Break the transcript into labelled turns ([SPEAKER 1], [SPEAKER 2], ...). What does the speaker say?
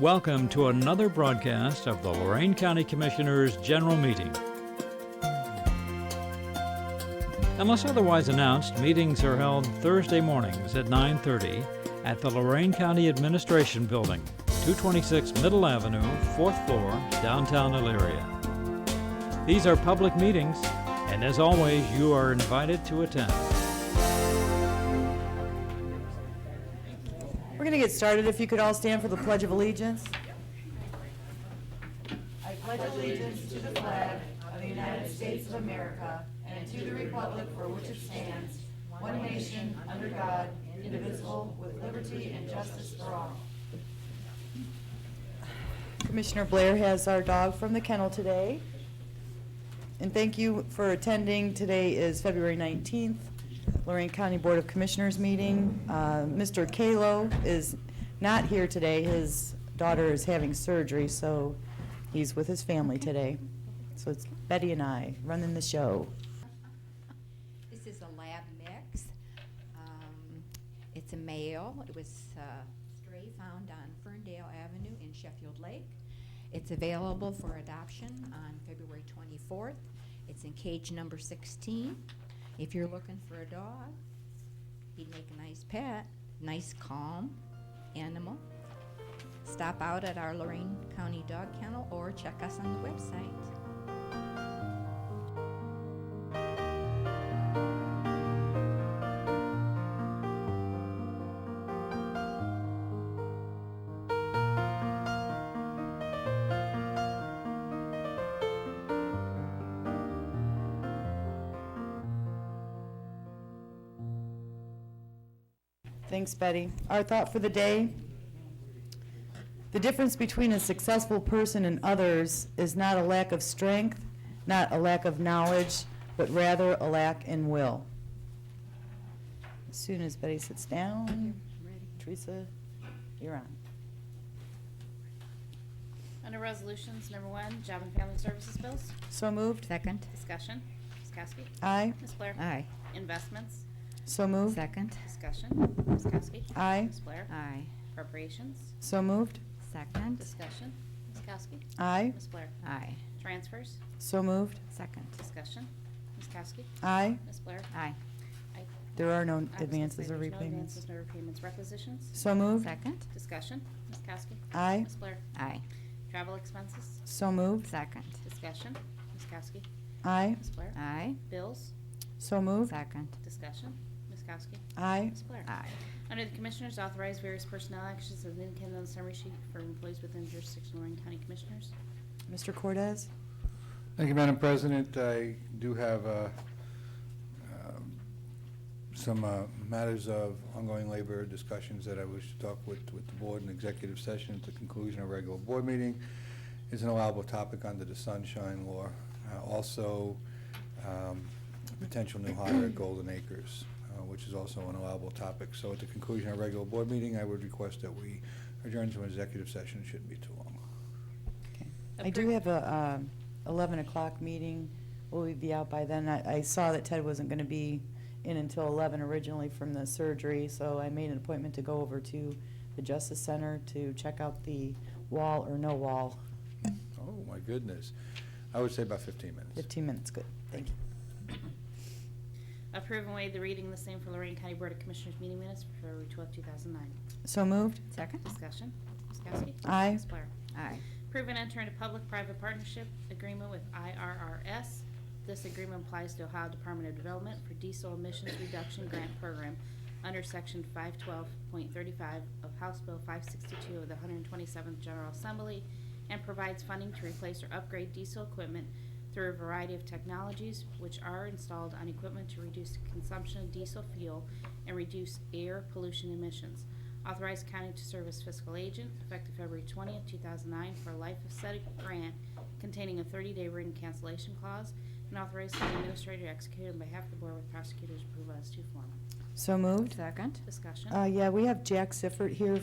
[SPEAKER 1] Welcome to another broadcast of the Lorraine County Commissioners' General Meeting. Unless otherwise announced, meetings are held Thursday mornings at 9:30 at the Lorraine County Administration Building, 226 Middle Avenue, 4th floor, downtown Elyria. These are public meetings, and as always, you are invited to attend.
[SPEAKER 2] We're going to get started. If you could all stand for the Pledge of Allegiance. Commissioner Blair has our dog from the kennel today. And thank you for attending. Today is February 19th, Lorraine County Board of Commissioners meeting. Uh, Mr. Kalo is not here today. His daughter is having surgery, so he's with his family today. So it's Betty and I running the show.
[SPEAKER 3] This is a lab mix. Um, It's a male. It was uh, stray found on Ferndale Avenue in Sheffield Lake. It's available for adoption on February 24th. It's in cage number 16. If you're looking for a dog, he'd make a nice pet, nice calm animal. Stop out at our Lorraine County Dog Kennel or check us on the website.
[SPEAKER 2] Thanks, Betty. Our thought for the day, the difference between a successful person and others is not a lack of strength, not a lack of knowledge, but rather a lack in will. As soon as Betty sits down, Teresa, you're on.
[SPEAKER 4] Under Resolutions, number one, Job and Family Services bills.
[SPEAKER 2] So moved.
[SPEAKER 3] Second?
[SPEAKER 4] Discussion. Ms. Kowski.
[SPEAKER 2] Aye.
[SPEAKER 4] Ms. Blair.
[SPEAKER 3] Aye.
[SPEAKER 4] Investments.
[SPEAKER 2] So moved.
[SPEAKER 3] Second?
[SPEAKER 4] Discussion. Ms. Kowski.
[SPEAKER 2] Aye.
[SPEAKER 4] Ms. Blair.
[SPEAKER 3] Aye.
[SPEAKER 4] Appropriations.
[SPEAKER 2] So moved.
[SPEAKER 3] Second?
[SPEAKER 4] Discussion. Ms. Kowski.
[SPEAKER 2] Aye.
[SPEAKER 4] Ms. Blair.
[SPEAKER 3] Aye.
[SPEAKER 4] Transfers.
[SPEAKER 2] So moved.
[SPEAKER 3] Second.
[SPEAKER 4] Discussion. Ms. Kowski.
[SPEAKER 2] Aye.
[SPEAKER 4] Ms. Blair.
[SPEAKER 3] Aye.
[SPEAKER 4] I-
[SPEAKER 2] There are no
[SPEAKER 4] I was gonna
[SPEAKER 2] advances
[SPEAKER 4] say
[SPEAKER 2] or
[SPEAKER 4] there's No
[SPEAKER 2] repayments.
[SPEAKER 4] advances, no repayments. Requisitions.
[SPEAKER 2] So moved.
[SPEAKER 3] Second.
[SPEAKER 4] Discussion. Ms. Kowski.
[SPEAKER 2] Aye.
[SPEAKER 4] Ms. Blair.
[SPEAKER 3] Aye.
[SPEAKER 4] Travel expenses.
[SPEAKER 2] So moved.
[SPEAKER 3] Second.
[SPEAKER 4] Discussion. Ms. Kowski.
[SPEAKER 2] Aye.
[SPEAKER 4] Ms. Blair.
[SPEAKER 3] Aye.
[SPEAKER 4] Bills.
[SPEAKER 2] So moved.
[SPEAKER 3] Second.
[SPEAKER 4] Discussion. Ms. Kowski.
[SPEAKER 2] Aye.
[SPEAKER 4] Ms. Blair.
[SPEAKER 3] Aye.
[SPEAKER 4] Under the Commissioners, authorize various personnel actions as indicated on the summary sheet for employees within jurisdiction of Lorraine County Commissioners.
[SPEAKER 2] Mr. Cortez?
[SPEAKER 5] Thank you, Madam President. I do have uh, um, some uh, matters of ongoing labor discussions that I wish to talk with, with the board in executive session at the conclusion of regular board meeting. It's an allowable topic under the sunshine law. Uh, Also, um, potential new hire at Golden Acres, uh, which is also an allowable topic. So at the conclusion of regular board meeting, I would request that we adjourn to an executive session. It shouldn't be too long.
[SPEAKER 2] I do
[SPEAKER 4] Appro-
[SPEAKER 2] have a um, 11 o'clock meeting. Will we be out by then? I I saw that Ted wasn't going to be in until 11 originally from the surgery, so I made an appointment to go over to the Justice Center to check out the wall or no wall.
[SPEAKER 5] Oh, my goodness. I would say about 15 minutes.
[SPEAKER 2] 15 minutes, good. Thank you.
[SPEAKER 4] Approve and waive the reading of the same for Lorraine County Board of Commissioners meeting minutes for February 12, 2009.
[SPEAKER 2] So moved?
[SPEAKER 3] Second.
[SPEAKER 4] Discussion. Ms. Kowski?
[SPEAKER 2] Aye.
[SPEAKER 4] Ms. Blair?
[SPEAKER 3] Aye.
[SPEAKER 4] Approve and enter into public-private partnership agreement with IRRS. This agreement applies to Ohio Department of Development for diesel emissions reduction grant program under section 512.35 of House Bill 562 of the 127th General Assembly and provides funding to replace or upgrade diesel equipment through a variety of technologies which are installed on equipment to reduce consumption of diesel fuel and reduce air pollution emissions. Authorize county to serve as fiscal agent effective February 20th, 2009 for a life of set grant containing a 30-day written cancellation clause and authorize county administrator to execute on behalf of the board with prosecutor's approval as to form.
[SPEAKER 2] So moved?
[SPEAKER 3] Second.
[SPEAKER 4] Discussion.
[SPEAKER 2] Uh, Yeah, we have Jack Sifford here